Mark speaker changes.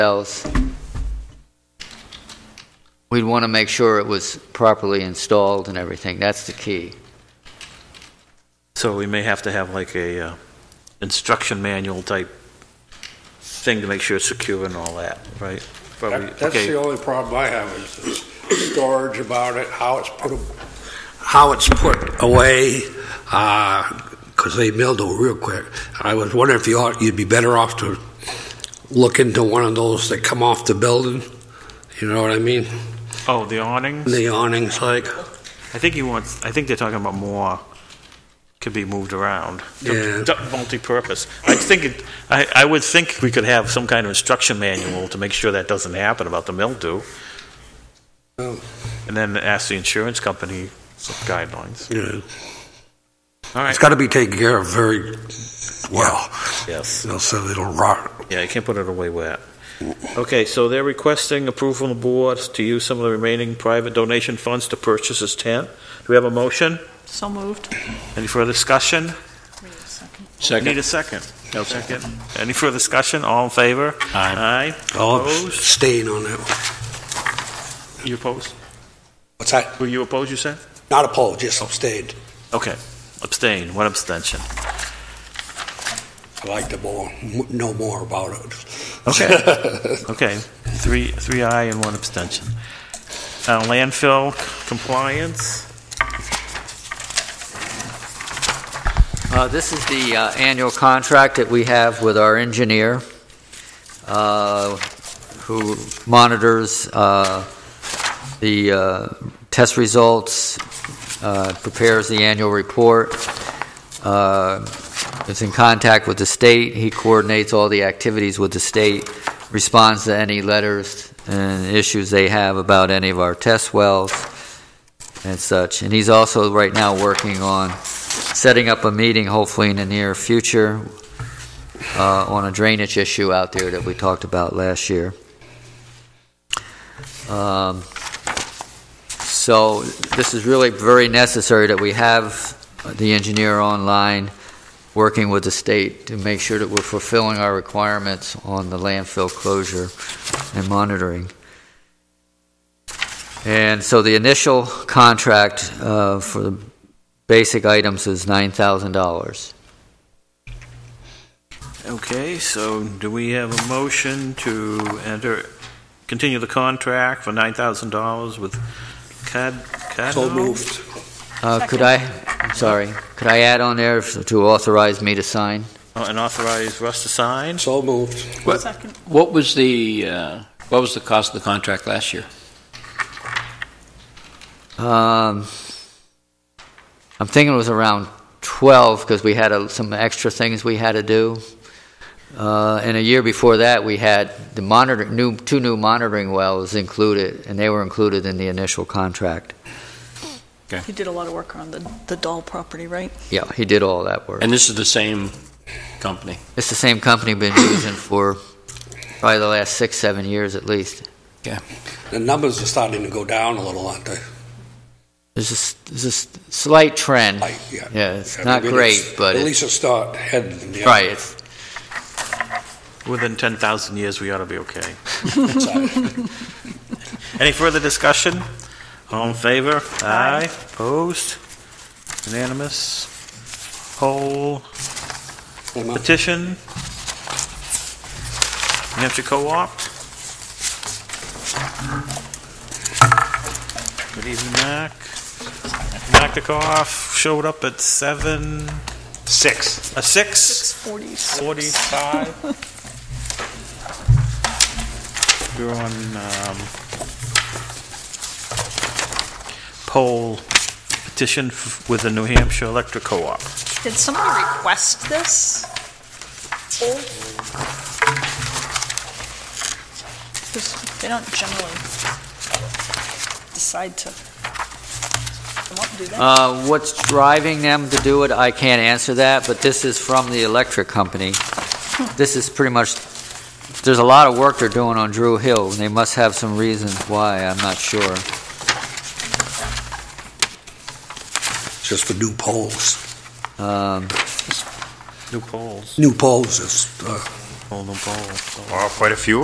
Speaker 1: else. We'd want to make sure it was properly installed and everything. That's the key.
Speaker 2: So we may have to have like a uh, instruction manual type thing to make sure it's secure and all that, right? Probably-
Speaker 3: That- That's
Speaker 2: okay.
Speaker 3: the only problem I have is the storage about it, how it's put, how it's put away, because they mildew real quick. I was wondering if you ought, you'd be better off to look into one of those that come off the building, you know what I mean?
Speaker 2: Oh, the awnings?
Speaker 3: The awnings like,
Speaker 2: I think he wants, I think they're talking about more could be moved around.
Speaker 3: Yeah.
Speaker 2: Du- Multi-purpose. I think, it- I, I would think we could have some kind of instruction manual to make sure that doesn't happen about the mildew.
Speaker 3: Oh.
Speaker 2: And then ask the insurance company some guidelines.
Speaker 3: you know,
Speaker 2: All right.
Speaker 3: it's got to be taken care of very well,
Speaker 2: Yes.
Speaker 3: you know, so it'll rot.
Speaker 2: Yeah, you can't put it away wet. Okay, so they're requesting approval from the board to use some of the remaining private donation funds to purchase this tent. Do we have a motion?
Speaker 4: So moved.
Speaker 2: Any further discussion?
Speaker 4: Wait a second.
Speaker 2: Need a second? No second. Any further discussion? All in favor? Aye.
Speaker 3: I'll
Speaker 2: Opposed?
Speaker 3: stain on that one.
Speaker 2: You opposed?
Speaker 3: What's that?
Speaker 2: Were you opposed, you said?
Speaker 3: Not a pole, just stained.
Speaker 2: Okay. Abstain, one abstention.
Speaker 3: I like to more, know more about it.
Speaker 2: Okay. Okay, three, three aye and one abstention. Uh, Landfill compliance?
Speaker 1: Uh, This is the uh, annual contract that we have with our engineer, uh, who monitors uh, the uh, test results, uh, prepares the annual report, uh, is in contact with the state, he coordinates all the activities with the state, responds to any letters and issues they have about any of our test wells and such. And he's also, right now, working on setting up a meeting, hopefully in the near future, uh, on a drainage issue out there that we talked about last year. Um, So this is really very necessary that we have the engineer online, working with the state to make sure that we're fulfilling our requirements on the landfill closure and monitoring. And so the initial contract uh, for the basic items is $9,000.
Speaker 2: Okay, so do we have a motion to enter, continue the contract for $9,000 with Cad, Caddo?
Speaker 3: So moved.
Speaker 1: Uh, Could I, I'm sorry, could I add on there if- to authorize me to sign?
Speaker 2: Uh, And authorize Russ to sign?
Speaker 3: So moved.
Speaker 5: What-
Speaker 4: Second.
Speaker 5: What was the, uh, what was the cost of the contract last year?
Speaker 1: Um, I'm thinking it was around 12 because we had a- some extra things we had to do. Uh, And a year before that, we had the monitor, new, two new monitoring wells included, and they were included in the initial contract.
Speaker 4: You did a lot of work on the, the doll property, right?
Speaker 1: Yeah, he did all that work.
Speaker 5: And this is the same company.
Speaker 1: It's the same company been using for probably the last six, seven years at least.
Speaker 3: The numbers are starting to go down a little, aren't they?
Speaker 1: There's a, s- there's a s- slight trend.
Speaker 3: Like, yeah.
Speaker 1: Yeah, it's
Speaker 3: I
Speaker 1: not
Speaker 3: mean,
Speaker 1: great, but
Speaker 3: At
Speaker 1: it-
Speaker 3: least it's not heading in the
Speaker 1: Right, it's,
Speaker 2: Within 10,000 years, we ought to be okay.
Speaker 3: other side.
Speaker 2: Any further discussion? All in favor? Aye. Opposed? Unanimous? Poll?
Speaker 3: Come on.
Speaker 2: Petition? New Hampshire Co-op? Good evening, Mac. Mac Dickoff showed up at seven,
Speaker 6: Six.
Speaker 2: uh, six
Speaker 4: 646.
Speaker 2: forty-five. We're on, um, poll petition f- with the New Hampshire Electric Co-op.
Speaker 4: Did someone request this? Because they don't generally decide to come up and do that.
Speaker 1: Uh, What's driving them to do it, I can't answer that, but this is from the electric company. This is pretty much, there's a lot of work they're doing on Drew Hill, and they must have some reasons why, I'm not sure.
Speaker 3: It's just for new poles.
Speaker 1: Um,
Speaker 2: New polls.
Speaker 3: New poles is, uh,
Speaker 2: Poll, new polls.
Speaker 6: Well, quite a few